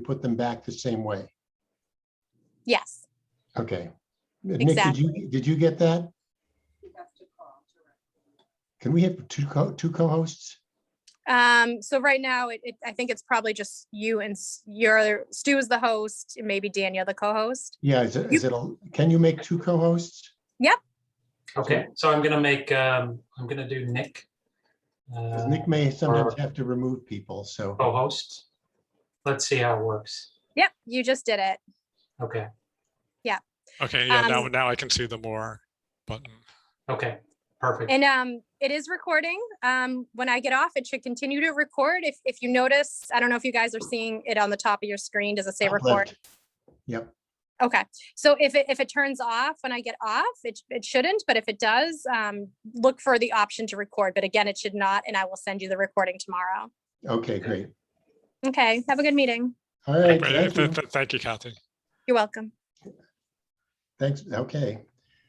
put them back the same way. Yes. Okay. Nick, did you, did you get that? Can we have two co, two co-hosts? Um, so right now, it, it, I think it's probably just you and S- your, Stu is the host, and maybe Danielle the co-host. Yeah, is it, is it, a- can you make two co-hosts? Okay, so I'm gonna make, um, I'm gonna do Nick. 'Cause uh, Nick may sometimes have to remove people, so, Co-host. Let's see how it works. Yep, you just did it. Okay, Okay, yeah, now, Um, now I can see the more button. okay, perfect. And um, it is recording. Um, when I get off, it should continue to record. If, if you notice, I don't know if you guys are seeing it on the top of your screen. Does it say Top record? left. Yep. Okay, so if it, if it turns off when I get off, it, it shouldn't, but if it does, um, look for the option to record. But again, it should not, and I will send you the recording tomorrow. okay, great. Okay, have a good meeting. All right, Th- thank you. uh, th- th- Thank you, Kathy. You're welcome. Thanks, okay.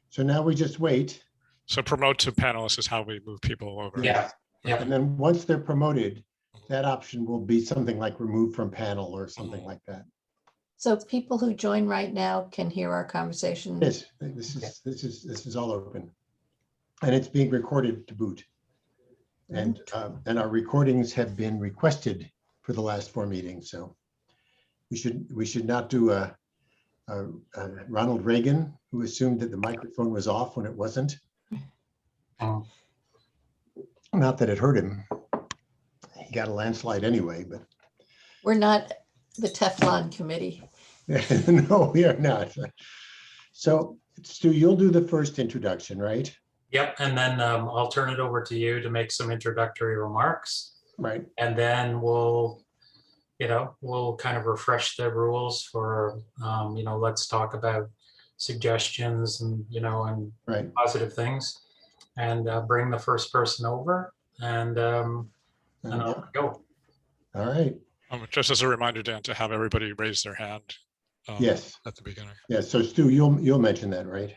So now we just wait, So promote to panelists is how we move people over. Yeah, yeah, and then once they're promoted, that option will be something like remove from panel or something like that. So people who join right now can hear our conversation. Yes, this is, this is, this is all open. And it's being recorded to boot. And, um, and our recordings have been requested for the last four meetings, so we should, we should not do a, a- a Ronald Reagan, who assumed that the microphone was off when it wasn't. Oh. Not that it hurt him. He got a landslide anyway, but We're not the Teflon committee. no, we are not. So Stu, you'll do the first introduction, right? yep. And then, um, I'll turn it over to you to make some introductory remarks. Right, And then we'll, you know, we'll kind of refresh the rules for, um, you know, let's talk about suggestions and, you know, and right. positive things and uh, bring the first person over and um, and Yeah. I'll go. All right, Um, Just as a reminder, Dan, to have everybody raise their hand. um, yes, At the beginning. yes. So Stu, you'll, you'll mention that, right?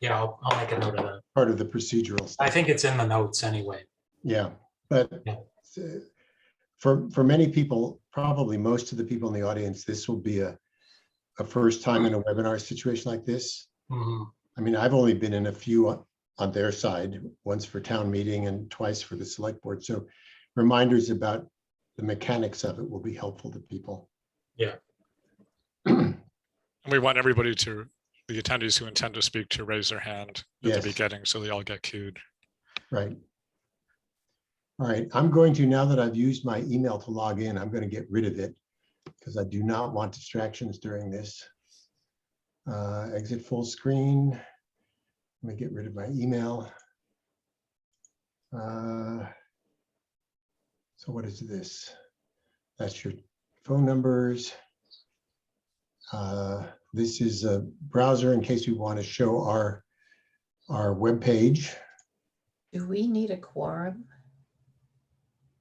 Yeah, I'll, I'll make a note of that. Part of the procedural I stuff. think it's in the notes anyway. Yeah, but Yeah. uh, for, for many people, probably most of the people in the audience, this will be a, a first time in a webinar situation like this. Mhm. I mean, I've only been in a few on, on their side, once for town meeting and twice for the select board. So reminders about the mechanics of it will be helpful to people. Yeah. And we want everybody to, the attendees who intend to speak to raise their hand at Yes. the beginning, so they all get cued. Right. All right, I'm going to, now that I've used my email to log in, I'm going to get rid of it because I do not want distractions during this. Uh, Exit full screen. Let me get rid of my email. Uh, So what is this? That's your phone numbers. Uh, This is a browser in case we want to show our, our webpage. Do we need a quorum?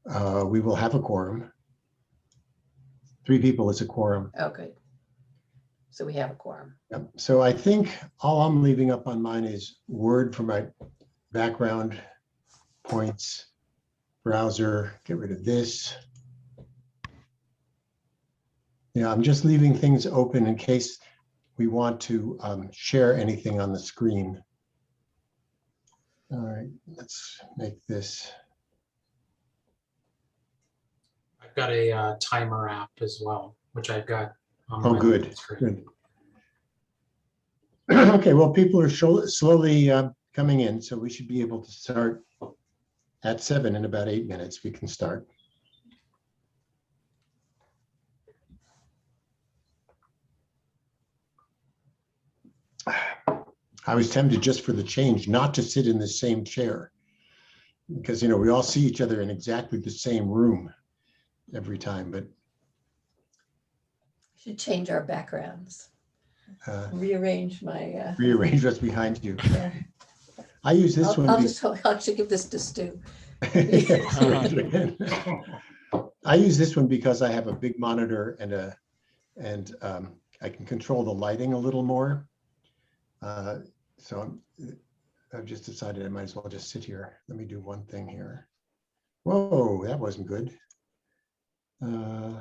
Uh, we will have a quorum. Three people is a quorum. Oh, good. So we have a quorum. Yep. So I think all I'm leaving up on mine is Word for my background, points, browser, get rid of this. Yeah, I'm just leaving things open in case we want to um, share anything on the screen. All right, let's make this, I've got a uh, timer app as well, which I've got. On Oh, my good, screen. good. Okay, well, people are sho- slowly uh, coming in, so we should be able to start at seven in about eight minutes. We can start. I was tempted just for the change not to sit in the same chair. Because, you know, we all see each other in exactly the same room every time, but Should change our backgrounds, uh, rearrange my, uh, rearrange what's behind you. yeah. I use this I'll one. I'll be- just, I'll actually give this to Stu. I use this one because I have a big monitor and a, and um, I can control the lighting a little more. Uh, So I'm, I've just decided I might as well just sit here. Let me do one thing here. Whoa, that wasn't good. Uh,